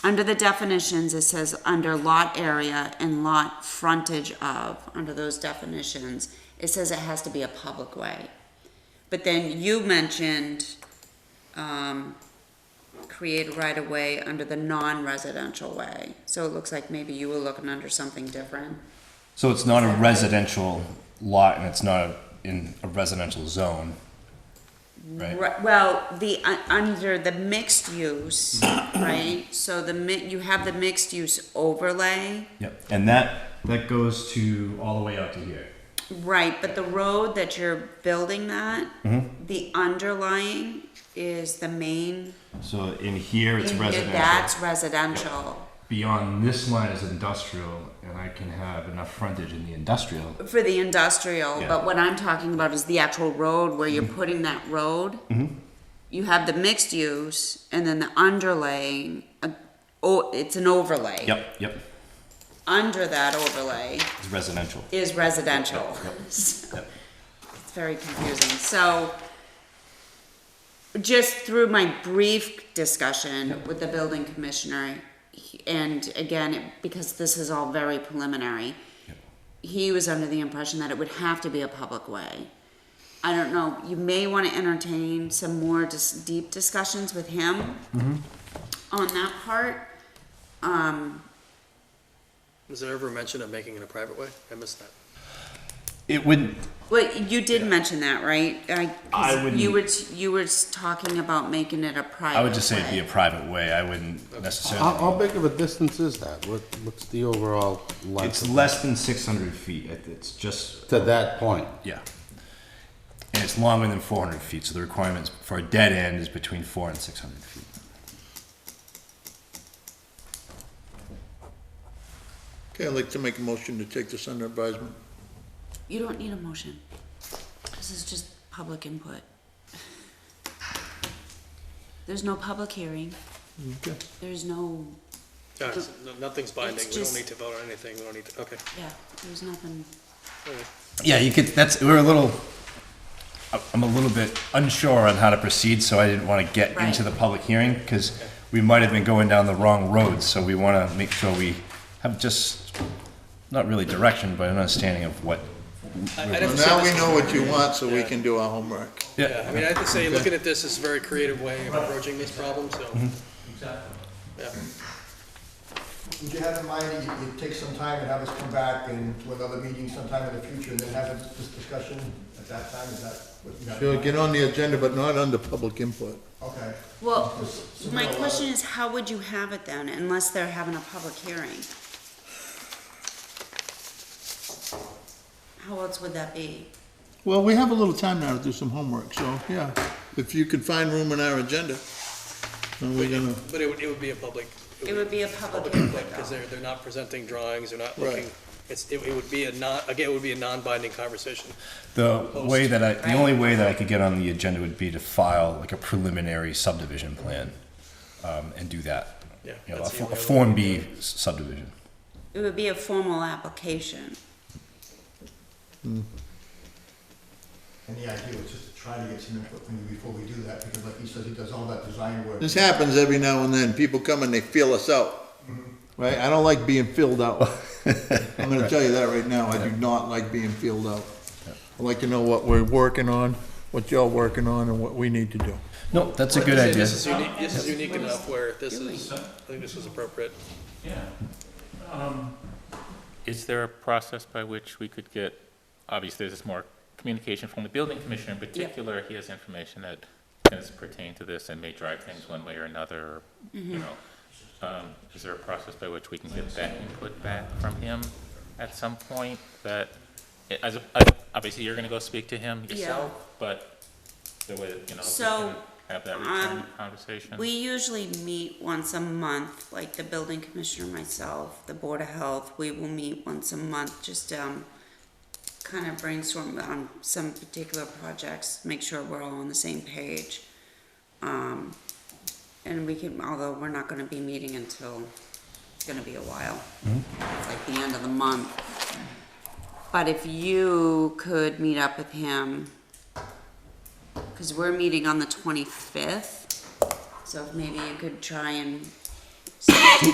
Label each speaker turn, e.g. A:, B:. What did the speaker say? A: Under the definitions, it says under lot area and lot frontage of, under those definitions, it says it has to be a public way. But then you mentioned, um, create right of way under the non-residential way. So it looks like maybe you were looking under something different.
B: So it's not a residential lot and it's not in a residential zone, right?
A: Right, well, the, uh, under the mixed use, right, so the mi, you have the mixed use overlay,
B: Yep. And that that goes to all the way out to here.
A: right, but the road that you're building that,
B: Mm-hmm.
A: the underlying is the main.
B: So in here it's
A: in-
B: residential.
A: That's residential,
B: Beyond this line is industrial, and I can have enough frontage in the industrial.
A: for the industrial,
B: Yeah. Mm-hmm.
A: but what I'm talking about is the actual road where you're putting that road. You have the mixed use, and then the underlaying, uh, oh, it's an overlay.
B: Yep. Yep.
A: Under that overlay,
B: It's residential.
A: is residential.
B: Yep,
A: It's
B: Yep.
A: very confusing. So just through my brief discussion with the building commissioner, he- and again, it- because this is all very preliminary,
B: Yep.
A: he was under the impression that it would have to be a public way. I don't know, you may want to entertain some more dis- deep discussions with him
B: Mm-hmm.
A: on that part.
C: Was there ever mention of making it a private way? I missed that.
B: It would.
A: Well, you did mention that, right? I, 'cause
B: I wouldn't- e-
A: You were, t- you were s- talking about making it a private.
B: I would just say it'd be a
A: way.
B: private way. I wouldn't
D: How, how
B: necessarily.
D: big of a distance is that? What, what's the overall length?
B: It's
D: of-
B: less than 600 feet. It- It's just
D: To that point,
B: yeah. And it's longer than 400 feet, so the requirements for a dead end is between four and 600 feet.
E: Okay, I'd like to make a motion to take this under advisement.
A: You don't need a motion. This is just public input. There's no public hearing.
E: Okay.
A: There's no,
C: Yeah, it's- no- Nothing's binding. We don't
A: just-
C: need to vote on anything. We don't need to, okay.
A: yeah, there's nothing.
C: all right.
B: Yeah, you could. That's we're a little. I'm a little bit unsure on how to proceed, so I didn't want to get
A: Right.
B: into the public hearing because we might have been going down the wrong road. So we want to make sure we have just not really direction, but an understanding of what.
C: I- I'd have
E: Well,
C: to
E: now
C: say
E: we
C: this-
E: know what you want, so we can do our homework.
C: Yeah, I mean, I have to say, looking at this, is a very creative way of approaching this problem, so.
E: Mm-hmm.
C: Yeah.
F: Would you have in mind, that you- you'd take some time and have us come back and to another meeting sometime in the future and then have this- this discussion at that time, is that what you got?
E: Sure, get on the agenda, but not under public input.
F: Okay.
A: Well,
F: Just
A: my
F: submit a
A: question
F: letter.
A: is, how would you have it then, unless they're having a public hearing? How else would that be?
E: Well, we have a little time now to do some homework, so, yeah, if you could find room in our agenda, then we're gonna,
C: But it would, it would be a public.
A: It would be a public input
C: input Because
A: though.
C: they're, they're not presenting drawings, they're not
E: Right.
C: looking, it's, it it would be a non, again, it would be a non-binding conversation.
B: The way that I, the only way that I could get on the agenda would be to file like a preliminary subdivision plan, um, and do that.
C: Yeah,
B: You know, a,
C: that's the
B: fo- a
C: only other-
B: Form B subdivision.
A: It would be a formal application.
F: And the idea was just to try to get some input from you before we do that, because like he says, he does all that design work.
E: this happens every now and then, people come and they feel us out. Right, I don't like being filled out. I'm gonna tell you that right now, I do not like being filled out. I'd like to know what we're working on, what y'all working on, and what we need to do.
B: No, that's a
C: This
B: good
C: is-
B: idea.
C: This is unique, this is unique enough where this is, I think this was appropriate.
G: Yeah. Um, Is there a process by which we could get, obviously, this is more communication from the building commissioner in particular. He has information that does pertain to this and may drive things one way or another,
A: Mm-hmm.
G: you know. Um, Is there a process by which we can get that input back from him at some point that, as, a- as- obviously, you're going to go speak to him
A: Yeah.
G: yourself, but the way, that, you know,
A: So,
G: we can have that
A: um,
G: return conversation?
A: We usually meet once a month, like the building commissioner, myself, the board of health, we will meet once a month, just, um, kind of brainstorm on some particular projects, make sure we're all on the same page. Um, and we can, although we're not gonna be meeting until, it's gonna be a while, It's like the end of the month. But if you could meet up with him, cause we're meeting on the twenty-fifth. So if maybe you could try and So